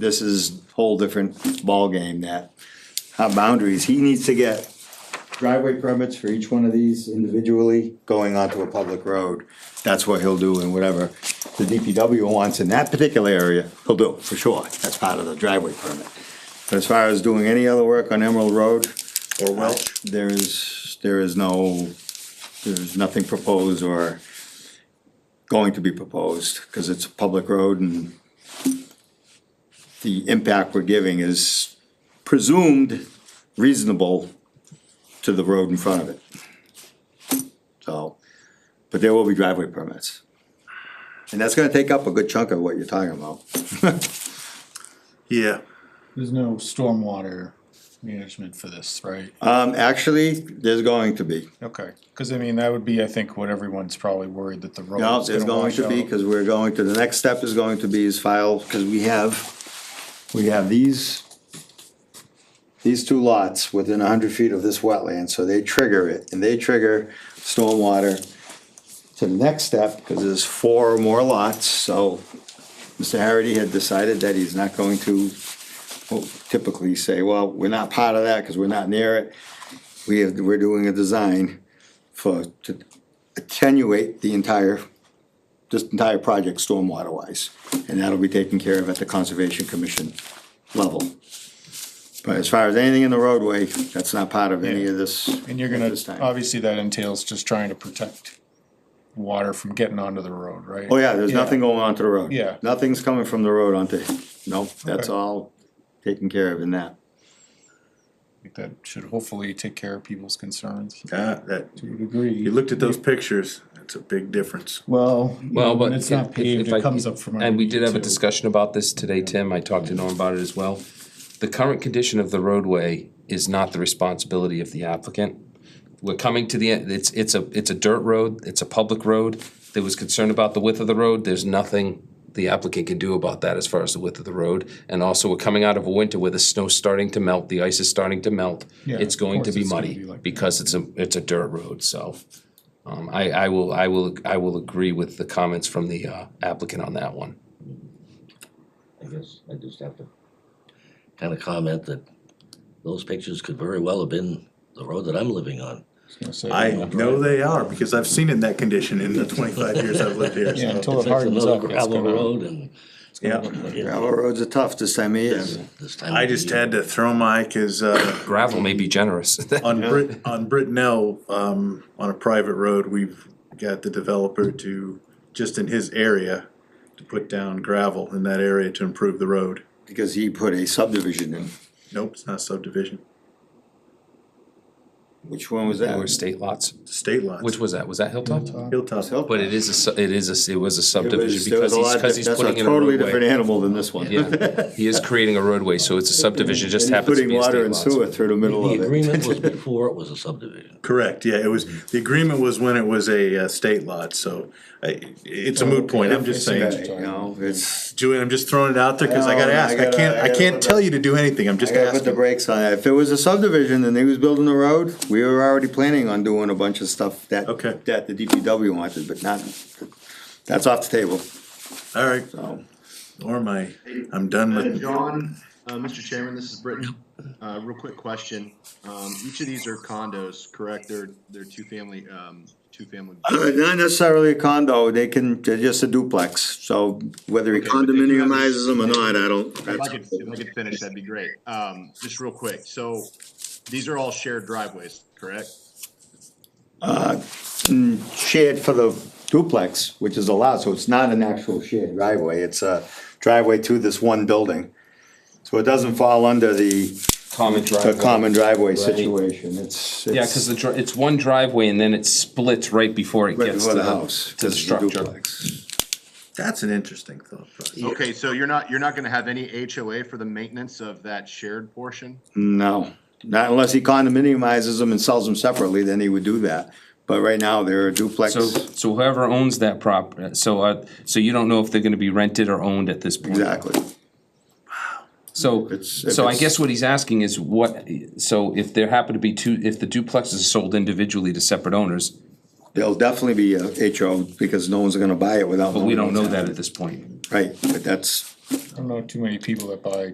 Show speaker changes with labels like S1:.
S1: this is whole different ballgame that, how boundaries, he needs to get driveway permits for each one of these individually going onto a public road. That's what he'll do and whatever the DPW wants in that particular area, he'll do, for sure, that's part of the driveway permit. But as far as doing any other work on Emerald Road. Or Welch. There is, there is no, there's nothing proposed or going to be proposed, cause it's a public road and the impact we're giving is presumed reasonable to the road in front of it. So, but there will be driveway permits. And that's gonna take up a good chunk of what you're talking about.
S2: Yeah,
S3: There's no stormwater management for this, right?
S1: Um, actually, there's going to be,
S3: Okay, cause I mean, that would be, I think, what everyone's probably worried that the road
S1: no,
S3: is
S1: there's
S3: gonna
S1: going
S3: wash
S1: to be,
S3: out.
S1: cause we're going to, the next step is going to be is file, cause we have, we have these these two lots within hundred feet of this wetland, so they trigger it, and they trigger stormwater to the next step, because there's four or more lots, so Mr. Harity had decided that he's not going to well, typically say, well, we're not part of that, because we're not near it. We have, we're doing a design for, to attenuate the entire, this entire project stormwater-wise, and that'll be taken care of at the Conservation Commission level. But as far as anything in the roadway, that's not part of any of this.
S3: And you're
S1: at
S3: gonna,
S1: this time.
S3: obviously that entails just trying to protect water from getting onto the road, right?
S1: Oh, yeah, there's nothing going onto the road.
S3: Yeah.
S1: Nothing's coming from the road onto, nope, that's
S3: Okay.
S1: all taken care of in that.
S3: I think That should hopefully take care of people's concerns
S2: ah, that,
S3: to a
S2: you
S3: degree.
S2: looked at those pictures, that's a big difference.
S3: Well,
S4: Well, but.
S3: when it's
S4: if-
S3: not
S4: if-
S3: paved,
S4: if I-
S3: it comes up from.
S4: And we
S3: underneath,
S4: did have a
S3: too.
S4: discussion about this today, Tim, I talked to Norm about it as well. The current condition of the roadway is not the responsibility of the applicant. We're coming to the, end. it's, it's a, it's a dirt road, it's a public road, there was concern about the width of the road, there's nothing the applicant can do about that as far as the width of the road, and also we're coming out of a winter where the snow's starting to melt, the ice is starting to melt.
S3: Yeah,
S4: It's
S3: of
S4: going to
S3: course
S4: be
S3: it's gonna be
S4: muddy,
S3: like that.
S4: because it's a, it's a dirt road, so. Um, I, I will, I will, I will agree with the comments from the uh, applicant on that one.
S5: I guess I just have to kind of comment that those pictures could very well have been the road that I'm living on.
S3: So,
S2: I
S3: yeah.
S2: know they are, because I've seen it in that condition in the twenty-five years I've lived here,
S3: Yeah,
S2: so,
S3: until it
S5: It's another
S3: hardens up. it's
S5: Gravel
S3: gonna-
S5: road and
S2: yeah.
S1: Gravel roads are tough this time of year.
S5: this time.
S2: I
S5: of
S2: just
S5: year.
S2: had to throw my, cause, uh,
S4: Gravel may be generous.
S2: on Brit, on Britnell, um, on a private road, we've got the developer to, just in his area, to put down gravel in that area to improve the road.
S1: Because he put a subdivision in,
S2: Nope, it's not subdivision,
S1: which one was
S4: There were
S1: that?
S4: state lots.
S2: it's state lots.
S4: Which was that? Was that Hilltop?
S2: Hilltop,
S4: But it is a, su- it is a, s- it was a
S1: It was-
S4: subdivision
S1: there was
S4: because
S1: a
S4: he's,
S1: lot
S4: because
S1: diff-
S4: he's putting in a
S1: That's a totally different
S4: roadway.
S1: animal than this one.
S4: Yeah, he is creating a roadway, so it's a subdivision, just happens to
S1: Putting
S4: be a
S1: water
S4: state
S1: and
S4: lot.
S1: sewer through the middle
S5: The
S1: of it.
S5: agreement was before it was a subdivision.
S2: correct, yeah, it was, the agreement was when it was a, uh, state lot, so, I, it's a moot point, I'm
S3: It's
S2: just
S3: a
S2: saying.
S1: You
S3: bad-
S1: know, it's,
S2: Julian, I'm just throwing it out there because I
S1: No,
S2: gotta
S1: I
S2: ask. I,
S1: gotta-
S2: can't.
S1: I
S2: I,
S1: gotta
S2: can't
S1: put
S2: tell you to do anything. I'm
S1: I
S2: just
S1: gotta put the
S2: asking.
S1: brakes on it. If it was a subdivision and he was building the road, we were already planning on doing a bunch of stuff that,
S2: Okay.
S1: that the DPW wanted, but not, that's off the table,
S2: All right,
S1: so.
S2: or my, I'm done
S6: Uh,
S2: with.
S6: John, uh, Mr. Chairman, this is Britton. Uh, real quick question. Um, each of these are condos, correct? They're, they're two-family, um, two-family.
S1: Uh, Not necessarily a condo, they can, they're just a duplex, so whether he
S6: Okay, but they do have-
S1: condominiumizes them or not, I don't.
S6: If I could, if I could finish, that'd be great. Um, just real quick. So these are all shared driveways, correct?
S1: Shared for the duplex, which is allowed, so it's not an actual shared driveway, it's a driveway to this one building. So it doesn't fall under the,
S4: Common
S1: the
S4: driveway.
S1: common driveway
S4: Right.
S1: situation, it's.
S4: Yeah, cause the, dri- it's one driveway and then it splits right before it
S1: Right
S4: gets
S1: before
S4: to
S1: the
S4: the
S1: house,
S4: house, to the
S1: this is the
S4: structure.
S1: duplex.
S2: That's an interesting thought. Process.
S6: Okay, so you're not, you're not gonna have any HOA for the maintenance of that shared portion?
S1: No, not unless he condominiumizes them and sells them separately, then he would do that, but right now, they're a duplex.
S4: So, so whoever owns that prop, so, uh, so you don't know if they're gonna be rented or owned at this point.
S1: Exactly.
S4: So,
S1: it's- if
S4: so I
S1: it's-
S4: guess what he's asking is what, so if there happen to be two, if the duplexes are sold individually to separate owners,
S1: There'll definitely be a HO because no one's gonna buy it without.
S4: But we
S1: knowing
S4: don't know
S1: what's
S4: that
S1: happening.
S4: at this point.
S1: Right, but that's,
S3: I don't know too many people that buy